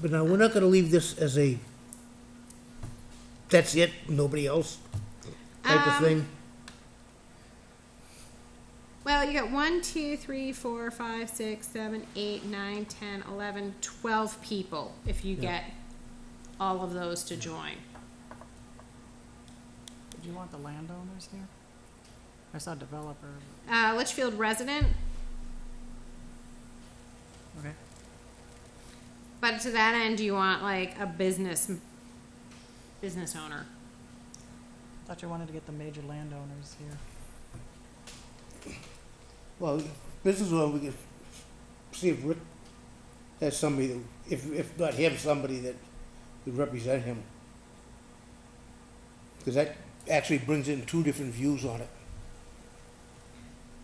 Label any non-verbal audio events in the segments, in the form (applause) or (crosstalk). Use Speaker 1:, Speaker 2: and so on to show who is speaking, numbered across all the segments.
Speaker 1: But now, we're not gonna leave this as a, that's it, nobody else type of
Speaker 2: Um,
Speaker 1: thing.
Speaker 2: Well, you got one, two, three, four, five, six, seven, eight, nine, ten, eleven, twelve people if you get all of those to join.
Speaker 3: Do you want the landowners here? I saw developer,
Speaker 2: Uh, Litchfield resident,
Speaker 3: okay.
Speaker 2: but to that end, do you want like a business, business owner?
Speaker 3: Thought you wanted to get the major landowners here.
Speaker 1: Well, this is where we can see if Rick has somebody, that- if, if not him, somebody that would represent him. Because that actually brings in two different views on it.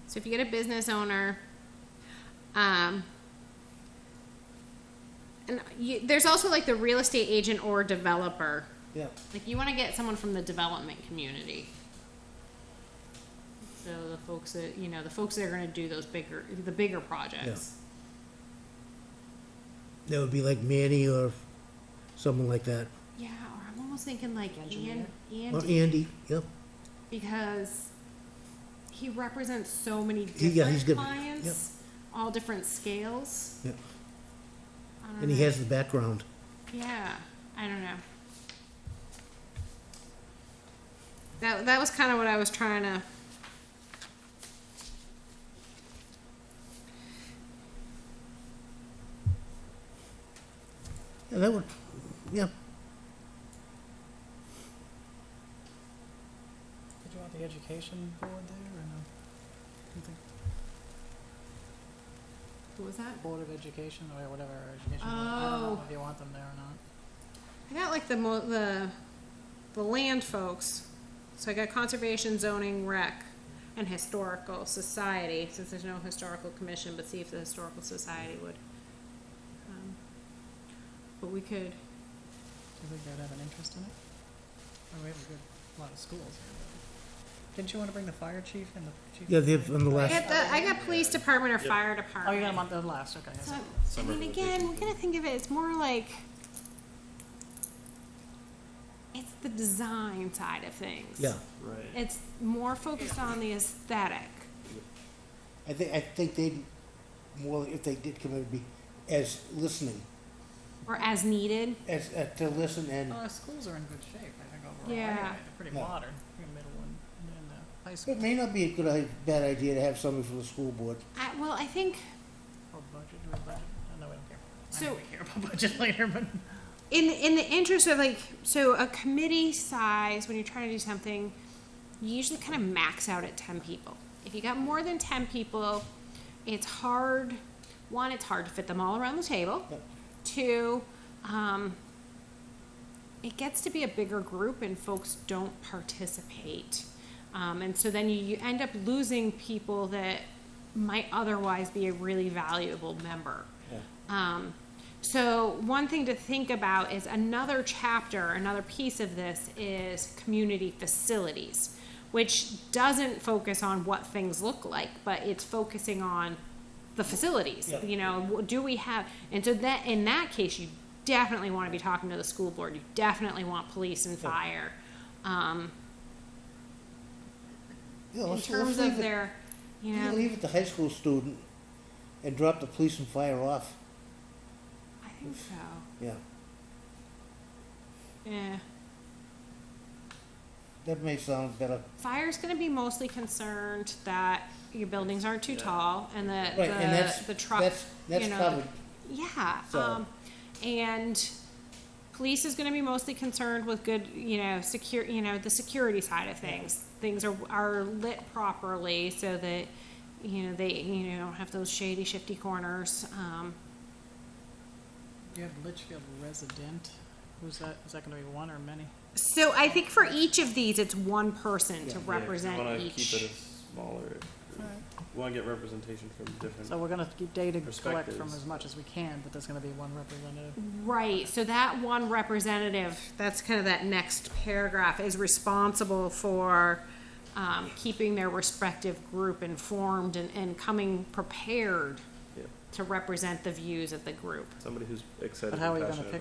Speaker 2: So if you get a business owner, um, and you, there's also like the real estate agent or developer.
Speaker 1: Yeah.
Speaker 2: Like you want to get someone from the development community. So the folks that you know, the folks that are going to do those bigger, the bigger projects.
Speaker 1: That would be like Manny or someone like that.
Speaker 2: Yeah, or I'm almost thinking like
Speaker 3: Engineer.
Speaker 2: An-
Speaker 1: Or
Speaker 2: Andy
Speaker 1: Andy, yep.
Speaker 2: because he represents so many
Speaker 1: He-
Speaker 2: different
Speaker 1: yeah, he's good.
Speaker 2: clients, all different scales.
Speaker 1: Yep.
Speaker 2: I don't
Speaker 1: And he
Speaker 2: know.
Speaker 1: has the background.
Speaker 2: Yeah, I don't know. That that was kind of what I was trying to.
Speaker 1: Yeah, that would, yeah.
Speaker 3: Did you want the education board there or no? You think
Speaker 2: What was that?
Speaker 3: Board of Education or whatever, or education board, I don't know
Speaker 2: Oh.
Speaker 3: if you want them there or not.
Speaker 2: I got like the mo- the the land folks. So I got conservation, zoning, rec, and historical society. Since there's no historical commission, but see if the historical society would. Um, but we could.
Speaker 3: Do you think they'd have an interest in it? Oh, we have a good, lot of schools here. but- Didn't you wanna bring the fire chief and the chief?
Speaker 1: Yeah,
Speaker 3: of
Speaker 1: they
Speaker 3: police?
Speaker 1: have um, on the
Speaker 2: I
Speaker 1: last-
Speaker 2: got the I got police department or fire department.
Speaker 3: Oh, you got them on the last, okay. I
Speaker 2: So,
Speaker 3: see.
Speaker 2: I
Speaker 4: Summer
Speaker 2: mean, again,
Speaker 4: vacation.
Speaker 2: we're gonna think of it, it's more like, it's the design side of things.
Speaker 1: Yeah,
Speaker 4: Right.
Speaker 2: It's more focused on the aesthetic.
Speaker 1: I think, I think they'd, more, if they did come in, it'd be as listening,
Speaker 2: Or as needed.
Speaker 1: as, uh, to listen and,
Speaker 3: Well, our schools are in good shape, I think overall,
Speaker 2: Yeah.
Speaker 3: anyway. They're pretty
Speaker 1: Yeah.
Speaker 3: modern, your middle and, and, uh, high school,
Speaker 1: it may not be a good, i- bad idea to have somebody from the school board.
Speaker 2: I, well, I think
Speaker 3: or budget, do we budget? Oh, No, we don't care. I
Speaker 2: So-
Speaker 3: know we care about budget (laughs) later, but.
Speaker 2: in, in the interest of like, so a committee size, when you're trying to do something, you usually kind of max out at ten people. If you got more than ten people, it's hard, one, it's hard to fit them all around the table.
Speaker 1: Yep.
Speaker 2: Two, um, it gets to be a bigger group and folks don't participate. Um, and so then you, you end up losing people that might otherwise be a really valuable member.
Speaker 1: Yeah.
Speaker 2: Um, so one thing to think about is another chapter, another piece of this is community facilities, which doesn't focus on what things look like, but it's focusing on the facilities.
Speaker 1: Yeah.
Speaker 2: You know, w- do we have? And so that in that case, you definitely want to be talking to the school board. You definitely want police and
Speaker 1: Yeah.
Speaker 2: fire. Um,
Speaker 1: Yeah,
Speaker 2: in
Speaker 1: let's-
Speaker 2: terms
Speaker 1: let's leave
Speaker 2: of
Speaker 1: it-
Speaker 2: their, you
Speaker 1: You
Speaker 2: know,
Speaker 1: can leave it to high school student and drop the police and fire off,
Speaker 2: I think so. Eh.
Speaker 1: yeah.
Speaker 2: Yeah.
Speaker 1: That may sound better.
Speaker 2: Fire's gonna be mostly concerned that your buildings aren't too
Speaker 4: Yeah.
Speaker 2: tall and that
Speaker 1: Right, and that's,
Speaker 2: the, the truck,
Speaker 1: that's,
Speaker 2: you
Speaker 1: that's
Speaker 2: know,
Speaker 1: covered,
Speaker 2: yeah,
Speaker 1: So-
Speaker 2: um, and police is gonna be mostly concerned with good, you know, secure, you know, the security side of things. Things are, are lit properly so that, you know, they, you know, don't have those shady shifty corners, um,
Speaker 3: You have Litchfield resident, who's that, is that gonna be one or many?
Speaker 2: so I think for each of these, it's one person
Speaker 1: Yeah.
Speaker 2: to
Speaker 1: Yeah,
Speaker 4: You
Speaker 2: represent
Speaker 4: wanna keep it
Speaker 2: each.
Speaker 4: as smaller. You wanna get representation from different.
Speaker 3: So we're gonna keep data collect from
Speaker 4: Perspectives.
Speaker 3: as much as we can, but there's gonna be one representative.
Speaker 2: Right, so that one representative, that's kind of that next paragraph, is responsible for um, keeping their respective group informed and, and coming prepared
Speaker 4: Yeah.
Speaker 5: to represent the views of the group.
Speaker 4: somebody who's excited
Speaker 2: But how are
Speaker 4: and
Speaker 2: you gonna
Speaker 4: passionate
Speaker 2: pick